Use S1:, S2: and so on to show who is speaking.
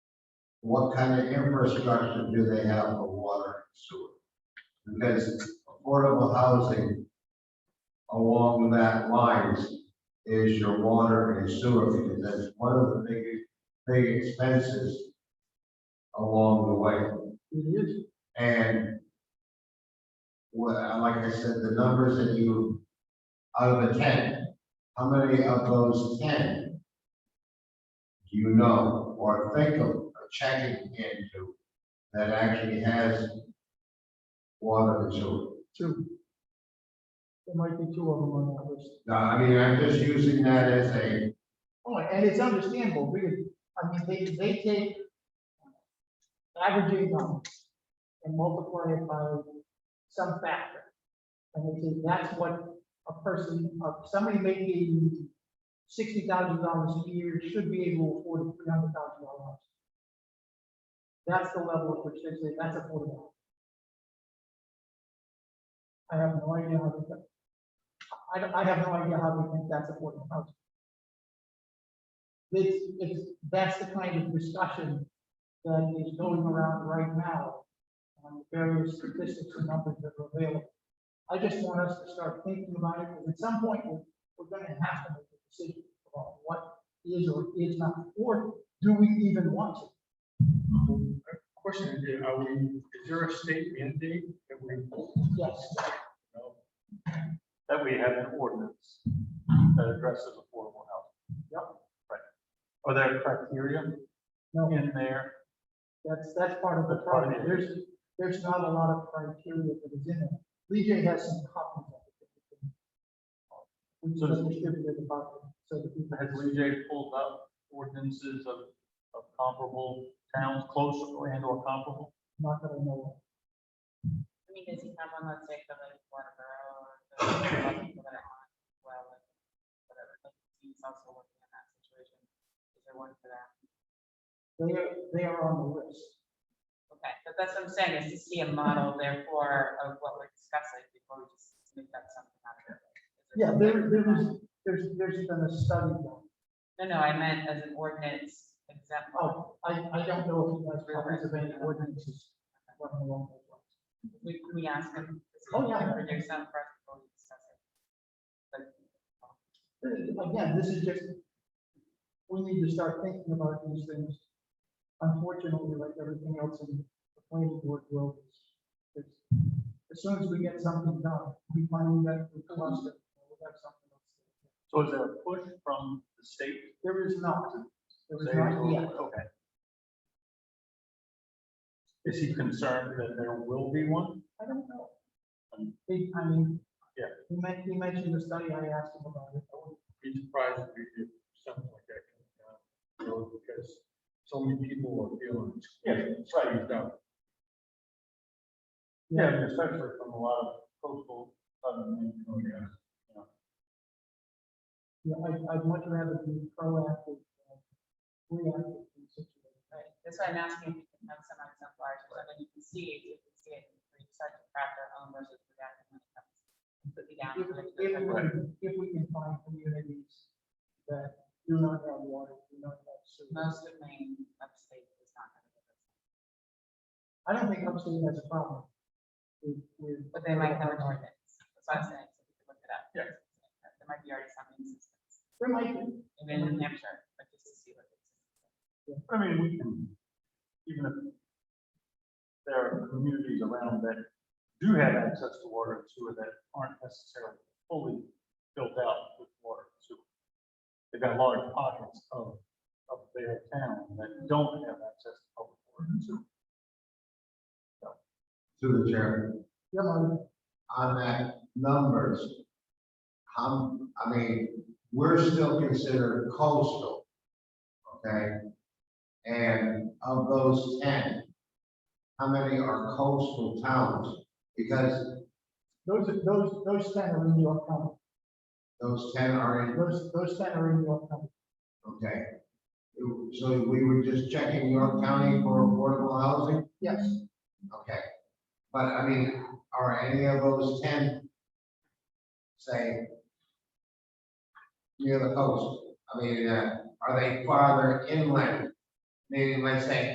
S1: what kind of infrastructure do they have for water and sewer? Because affordable housing along that lines is your water and sewer, because that's one of the big, big expenses along the way. And well, like I said, the numbers that you, out of the ten, how many of those ten do you know or think of of checking into that actually has water and sewer?
S2: Two. There might be two of them on that list.
S1: Now, I mean, I'm just using that as a,
S2: Oh, and it's understandable, really. I mean, they, they take average income and multiply it by some factor. And they say that's what a person, uh, somebody making sixty thousand dollars a year should be able to afford three hundred thousand dollars. That's the level at which they say that's affordable. I have no idea how to, I, don't- I have no idea how they think that's affordable housing. It's, it's, that's the kind of discussion that is going around right now on the various statistics and numbers that are available. I just want us to start thinking about it, because at some point, we're, we're gonna have to make a decision about what is or is not, or do we even want to?
S3: Question, is, are we, is there a state mandate that we,
S2: Yes,
S4: that we have an ordinance that addresses affordable housing. Yep. Right. Are there criteria
S2: no,
S4: in there?
S2: that's, that's part of the
S4: That's part of it.
S2: problem, there's, there's not a lot of criteria that is in it. Lee J has some copies of it. We
S4: So does-
S2: just distributed it about, so that people
S4: Has Lee J pulled up ordinances of, of comparable towns, close and or comparable?
S2: not that I know of.
S5: I mean, does he have one, let's say, for like Waterboro or the other people that are on, well, like, whatever, like, he's also working in that situation. Is there one for that?
S2: They are, they are on the list.
S5: Okay, but that's what I'm saying, is to see a model therefore of what we're discussing before we just make that something out of it.
S2: Yeah, there, there was, there's, there's been a study done.
S5: No, no, I meant as an ordinance example.
S2: Oh, I, I don't know if that's copies of any ordinances running along those lines.
S5: We, can we ask him. is he
S2: Oh, yeah.
S5: gonna Produce some for us before we discuss it. But
S2: But Again, this is just, we need to start thinking about these things. Unfortunately, like everything else in the planning board world, it's, as soon as we get something done, we find that we cluster, we have something else.
S4: So is there a push from the state?
S2: There is not, there is
S4: Say, oh,
S2: not yet.
S4: Okay. Is he concerned that there will be one?
S2: I don't know.
S4: Um,
S2: He, I mean.
S4: Yeah.
S2: He men- he mentioned the study, I asked him about it. I wouldn't-
S3: be surprised if we did something like that? uh, you know, Because so many people are feeling. it's-
S4: Yeah, that's right.
S3: it's out.
S4: Yeah, especially from a lot of coastal southern Maine communities.
S2: Yeah, I, I'd much rather be proactive. than Reactive. in situations.
S5: Right, that's why I'm asking if you can have some on some flowers, so that you can see, you can see it, we start to craft our own versus the guy when it comes. Completely down.
S2: If,
S5: to the-
S2: if, we- if we can find communities that do not have water, do not have sewer.
S5: Most of Maine upstate is not gonna get this,
S2: I don't think upstate has a problem. with- with-
S5: but they might have an ordinance, that's what I'm saying, so we can look it up.
S4: Yeah.
S5: There might be already some existence,
S2: There might be.
S5: even in New Hampshire, but just to see what it is.
S4: I mean, we can, even if there are communities around that do have access to water and sewer that aren't necessarily fully filled out with water and sewer. They've got large pockets of, of their town that don't have access to public water and sewer.
S1: to the chair,
S2: Yeah, but
S1: on that numbers. How, I mean, we're still considered coastal, okay? And of those ten, how many are coastal towns? Because
S2: Those, are- those, those ten are in New York County.
S1: those ten are in
S2: Those, those ten are in New York County.
S1: Okay. So we were just checking York County for affordable housing?
S2: Yes.
S1: Okay. But I mean, are any of those ten, say, near the coast? I mean, uh, are they farther inland? Meaning, let's say,